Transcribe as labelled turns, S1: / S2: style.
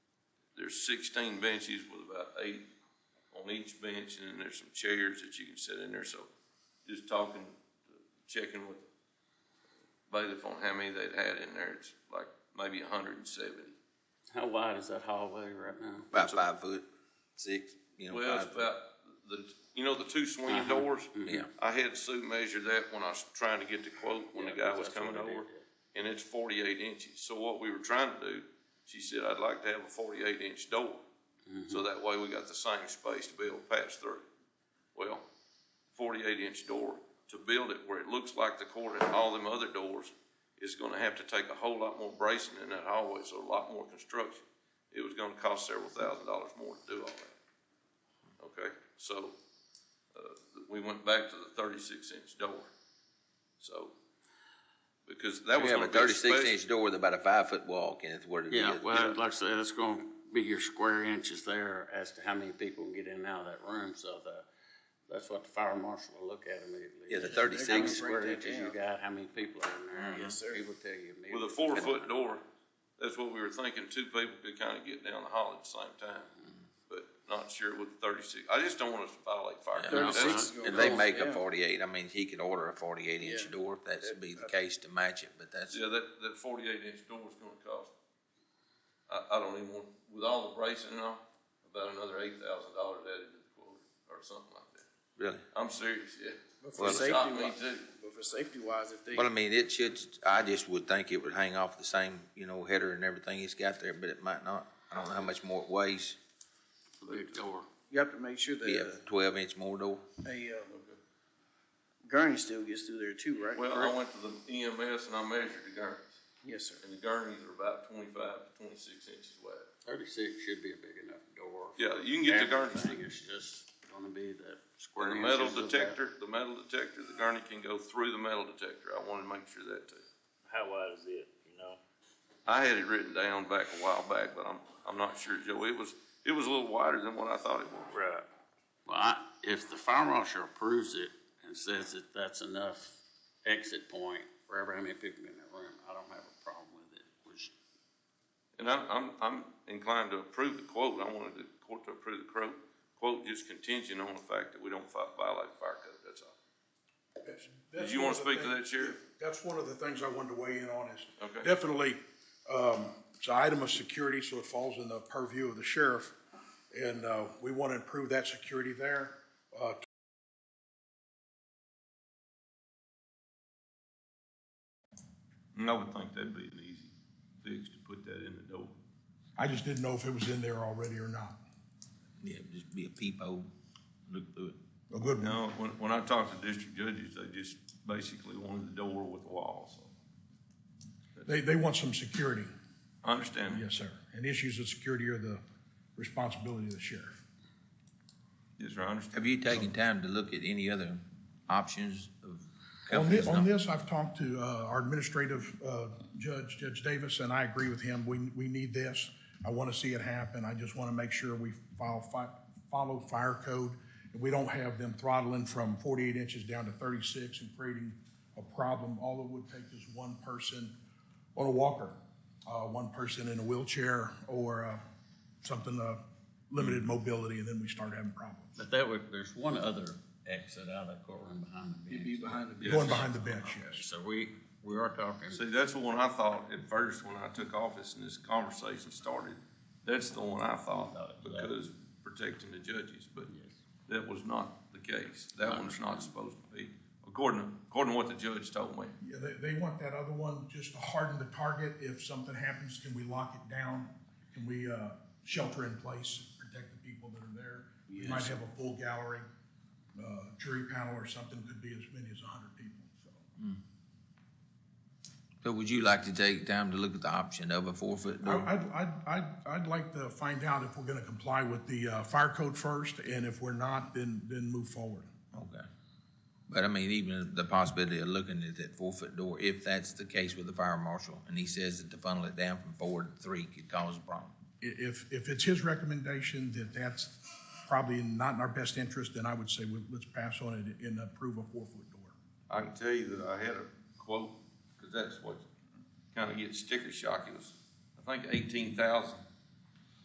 S1: there's sixteen benches with about eight on each bench, and then there's some chairs that you can sit in there, so just talking, checking with bailiff on how many they'd had in there, it's like maybe hundred and seventy.
S2: How wide is that hallway right now?
S3: About five foot, six, you know.
S1: Well, it's
S3: five-
S1: about the, you know, the two swing
S2: Uh-huh.
S1: doors?
S2: Yeah.
S1: I had Sue measure that when I was trying to get the quote, when the
S2: Yeah,
S1: guy was
S2: that's what
S1: coming
S2: I did,
S1: over, and it's forty-eight inches. So what we were trying to do, she said, I'd like to have a forty-eight inch door,
S3: Mm-hmm.
S1: so that way we got the same space to be able to pass through. Well, forty-eight inch door, to build it where it looks like the court and all them other doors, is gonna have to take a whole lot more bracing in that hallway, so a lot more construction. It was gonna cost several thousand dollars more to do all that. Okay, so, uh, we went back to the thirty-six inch door. So, because that
S3: We
S1: was
S3: have
S1: gonna
S3: a
S1: be a
S3: thirty-six
S1: special.
S3: inch door with about a five foot wall, Kenneth, where it is.
S2: Yeah, well, like I said, it's gonna be your square inches there as to how many people can get in and out of that room, so the, that's what the fire marshal will look at immediately.
S3: Yeah, the
S2: How many
S3: thirty-six,
S2: square
S4: that
S2: inches you
S4: down.
S2: got, Mm-hmm. how many people are in there.
S4: Yes, sir.
S2: He will tell you immediately.
S1: With a four-foot door, that's what we were thinking, two people could kind of get down the hall at the same time, but not sure with the thirty-six. I just don't want us to violate fire code.
S2: No,
S1: That's-
S2: it's
S3: if they make a
S4: Oh, Yeah.
S3: forty-eight, I mean, he could order a forty-eight
S4: Yeah.
S3: inch door if that's be the case to match it, but that's,
S1: Yeah, that, that forty-eight inch door is gonna cost, I, I don't even want, with all the bracing and all, about another eight thousand dollars added to the quote, or something like that.
S3: really.
S1: I'm serious, yeah.
S4: But for
S1: Well, it shocked
S4: safety
S1: me
S4: wi-
S1: too.
S4: But for safety wise, if they,
S3: Well, I mean, it should, I just would think it would hang off the same, you know, header and everything he's got there, but it might not. I don't know how much more it weighs,
S2: Big door.
S4: you have to make sure
S3: be a
S4: that
S3: twelve inch more door.
S4: uh, a, uh, gurney still gets through there too, right?
S1: Well, I
S4: Correct?
S1: went to the EMS and I measured the gurneys,
S4: Yes, sir.
S1: and the gurneys are about twenty-five to twenty-six inches wide.
S2: Thirty-six should be a big enough door.
S1: Yeah, you can get the gurneys.
S2: Everything, It's just gonna be the
S1: The
S2: square inches.
S1: metal
S2: of that.
S1: detector, the metal detector, the gurney can go through the metal detector. I wanted to make sure that too.
S5: How wide is it, you know?
S1: I had it written down back a while back, but I'm, I'm not sure, Joe. It was, it was a little wider than what I thought it was.
S5: Right.
S2: Well, I, if the fire marshal approves it and says that that's enough exit point for every, how many people in that room, I don't have a problem with it. Which,
S1: And I'm, I'm, I'm inclined to approve the quote. I wanted the court to approve the quote, quote just contingent on the fact that we don't fi- violate fire code, that's all.
S6: That's-
S1: Did
S6: that's
S1: you
S6: one
S1: wanna
S6: of the
S1: speak to that,
S6: things-
S1: Sheriff?
S6: That's one of the things I wanted to weigh in on is
S1: Okay.
S6: definitely, um, it's an item of security, so it falls in the purview of the sheriff. And, uh, we want to improve that security there. Uh,
S1: And I would think that'd be an easy fix to put that in the door.
S6: I just didn't know if it was in there already or not.
S3: Yeah, just be a peephole, look through it.
S6: A good one.
S1: No, when, when I talked to district judges, they just basically wanted the door with the walls.
S6: They, they want some security,
S1: I understand. that.
S6: yes, sir. And issues of security are the responsibility of the sheriff.
S1: Yes, sir, I understand.
S3: Have you taken time to look at any other options of
S6: On thi-
S3: companies?
S6: on this, I've talked to uh, our administrative uh, judge, Judge Davis, and I agree with him. We, we need this. I want to see it happen. I just want to make sure we file, fi- follow fire code. and We don't have them throttling from 48 inches down to 36 and creating a problem. All it would take is one person on a walker, uh, one person in a wheelchair or uh, something, uh, limited mobility, and then we start having problems.
S2: but that would, there's one other exit out of the courtroom behind the
S4: You'd be
S2: bench.
S4: behind the bench.
S6: Going behind the bench, yes.
S2: So we, we are talking,
S1: See, that's the one I thought at first when I took office and this conversation started. That's the one I thought because protecting the judges, but that was not the case. That one's not supposed to be, according, to- according to what the judge told me.
S6: Yeah, they, they want that other one just to harden the target. If something happens, can we lock it down? Can we, uh, shelter in place, protect the people that are there? We might have a full gallery, uh, jury panel or something, could be as many as a hundred people, so.
S3: So would you like to take time to look at the option of a four foot door?
S6: I- I'd, I'd, I'd, I'd like to find out if we're gonna comply with the, uh, fire code first, and if we're not, then, then move forward.
S3: Okay. But I mean, even the possibility of looking at that four-foot door, if that's the case with the fire marshal, and he says that to funnel it down from four to three could cause a problem.
S6: I- If, if it's his recommendation that that's probably not in our best interest, then I would say, we- let's pass on it and approve a four-foot door.
S1: I can tell you that I had a quote, because that's what kind of gets sticker shock. It was, I think, eighteen thousand